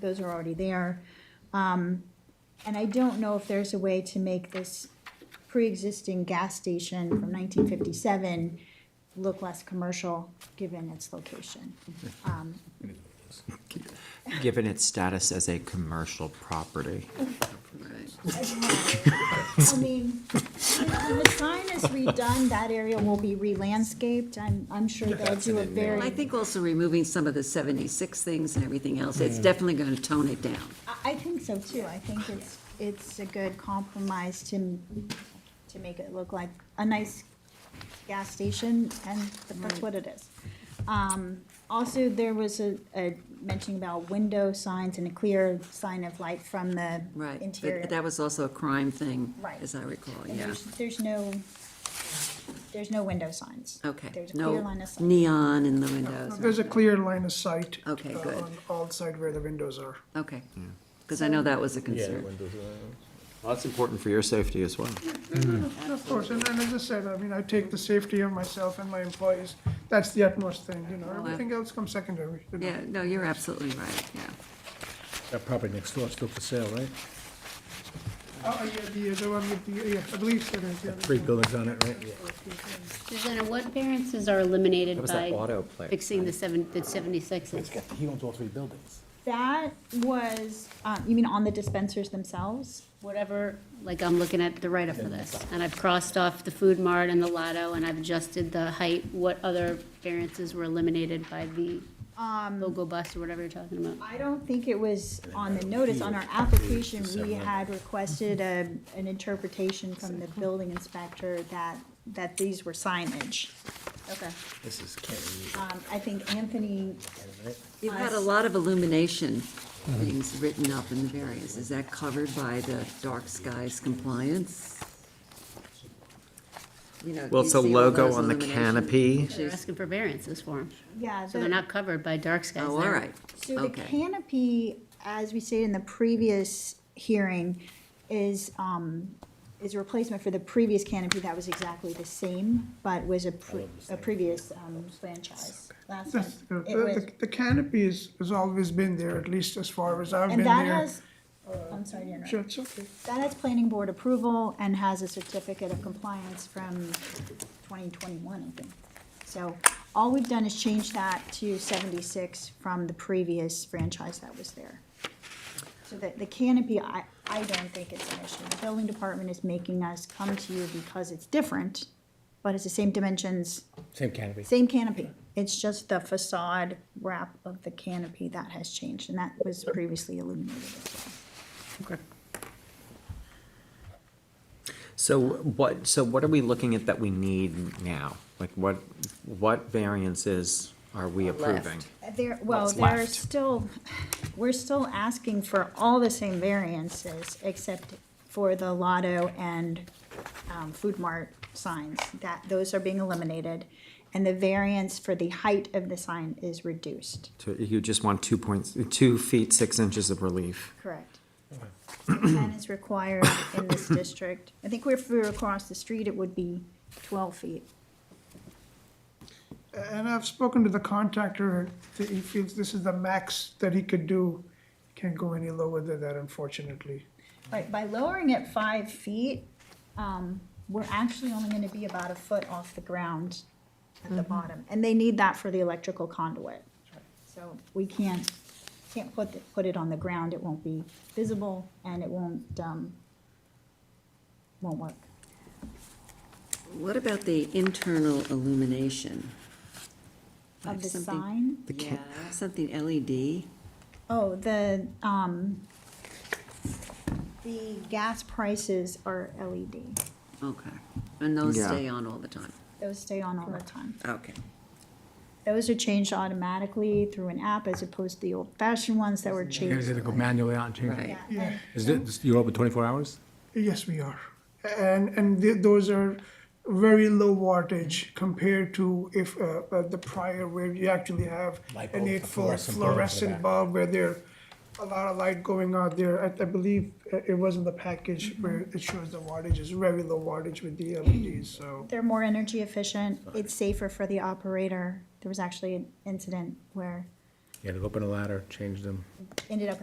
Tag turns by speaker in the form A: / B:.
A: those are already there. Um, And I don't know if there's a way to make this pre-existing gas station from nineteen fifty-seven look less commercial, given its location. Um,
B: given its status as a commercial property.
A: I mean, when the sign is redone, that area will be re-landscaped, I'm, I'm sure they'll do a very.
C: I think also removing some of the 76 things and everything else, it's
D: Mm.
C: definitely going to tone it down.
A: I- I think so too. I think it's, it's a good compromise to, to make it look like a nice gas station, and that's what it is. Um, Also, there was a, a mention about window signs and a clear sign of light from the
C: Right.
A: interior.
C: But that was also a crime thing,
A: Right.
C: as I recall,
A: And
C: yeah.
A: there's- There's no, there's no window signs.
C: Okay.
A: There's a
C: No
A: clear line of sight.
C: Neon in the windows,
D: There's a clear line of sight.
C: Okay,
D: uh,
C: good.
D: On all sides where the windows are.
C: okay. Because I know that was a
E: Yeah,
C: concern.
E: windows
B: Well, that's important for your safety as well.
D: Of course, and and as I said, I mean, I take the safety of myself and my employees, that's the utmost thing, you know, everything else comes secondary. you know.
C: Yeah, no, you're absolutely right, yeah.
E: That property next door is still for sale, right?
D: Oh, oh, yeah, the, the one with the, yeah, I believe there is, yeah.
E: Three buildings on it, right? Yeah.
F: Susanna, what variances are eliminated
B: That was that
F: by
B: auto play.
F: fixing the seven, the seventy-six?
E: He owns all three buildings.
A: That was, uh, you mean on the dispensers themselves?
F: Whatever, like, I'm looking at the write-up for this, and I've crossed off the food mart and the lotto, and I've adjusted the height. What other variances were eliminated by the
C: Um,
F: logo bus or whatever you're talking about?
A: I don't think it was on the notice, on our application, we had requested a, an interpretation from the building inspector that, that these were signage.
F: Okay.
E: This is Kenny,
A: Um, I think Anthony,
E: right?
C: You've had a
A: Us.
C: lot of illumination
D: Mm-hmm.
C: things written up in the various. Is that covered by the dark skies compliance? You know,
B: Well,
C: you
B: it's a
C: see all
B: logo
C: those
B: on the
C: illumination?
B: canopy.
F: They're asking for variances for them,
A: yeah.
F: so they're
A: the-
F: not covered by dark skies.
C: Oh, all
F: They're-
C: right,
A: So the
C: okay.
A: canopy, as we stated in the previous hearing, is, um, is a replacement for the previous canopy that was exactly the same, but was a, pre- a previous, um, franchise. Last time.
D: That's, the-
A: It was-
D: the, the canopy is, has always been there, at least as far as I've been
A: And
D: there.
A: that has, I'm sorry to interrupt.
D: Sure, it's okay.
A: That has planning board approval and has a certificate of compliance from twenty twenty-one, I think. So all we've done is change that to seventy-six from the previous franchise that was there. So that the canopy, I, I don't think it's an issue. The building department is making us come to you because it's different, but it's the same dimensions,
E: Same canopy.
A: same canopy. It's just the facade wrap of the canopy that has changed, and that was previously illuminated as well.
B: So what, so what are we looking at that we need now? Like what, what variances are we approving?
C: Left.
A: There, well,
B: What's
A: there are
B: left?
A: still, we're still asking for all the same variances, except for the Lotto and um, Food Mart signs, that, those are being eliminated. And the variance for the height of the sign is reduced.
B: To- You just want two points, two feet, six inches of relief.
A: Correct. Ten is required in this district. I think if we were across the street, it would be twelve feet.
D: And I've spoken to the contractor, th- he feels this is the max that he could do, can't go any lower than that unfortunately.
A: Right, by lowering it five feet, um, we're actually only gonna be about a foot off the ground at
C: Mm-hmm.
A: the bottom, and they need that for the electrical conduit. So we can't, can't put, it- put it on the ground, it won't be visible, and it won't, um, won't work.
C: What about the internal illumination?
A: Of
C: Like
A: the
C: something-
A: sign,
C: Yeah, something E LED.
A: oh, the, um, the gas prices are E LED,
C: Okay, and those
B: Yeah.
C: stay on all the time.
A: those stay on all the time.
C: Okay.
A: Those are changed automatically through an app as opposed to the old-fashioned ones that were
G: You guys
A: changed.
G: had to go manually out and change it.
C: Right.
A: Yeah,
D: Yeah.
A: and
G: Is it, you're open twenty-four hours?
D: Yes, we are. And, and th- those are very low wattage compared to if, uh, uh, the prior where you actually have
E: Light
D: an
E: bulb,
D: eight foot
E: fluorescent bulb in the
D: fluorescent
E: back.
D: bulb where there a lot of light going out there. I, I believe uh, it was in the package where it shows the wattage is very low wattage with the LEDs, so.
A: They're more energy efficient, it's safer for the operator. There was actually an incident where
E: You had to go up on a ladder, change them.
A: ended up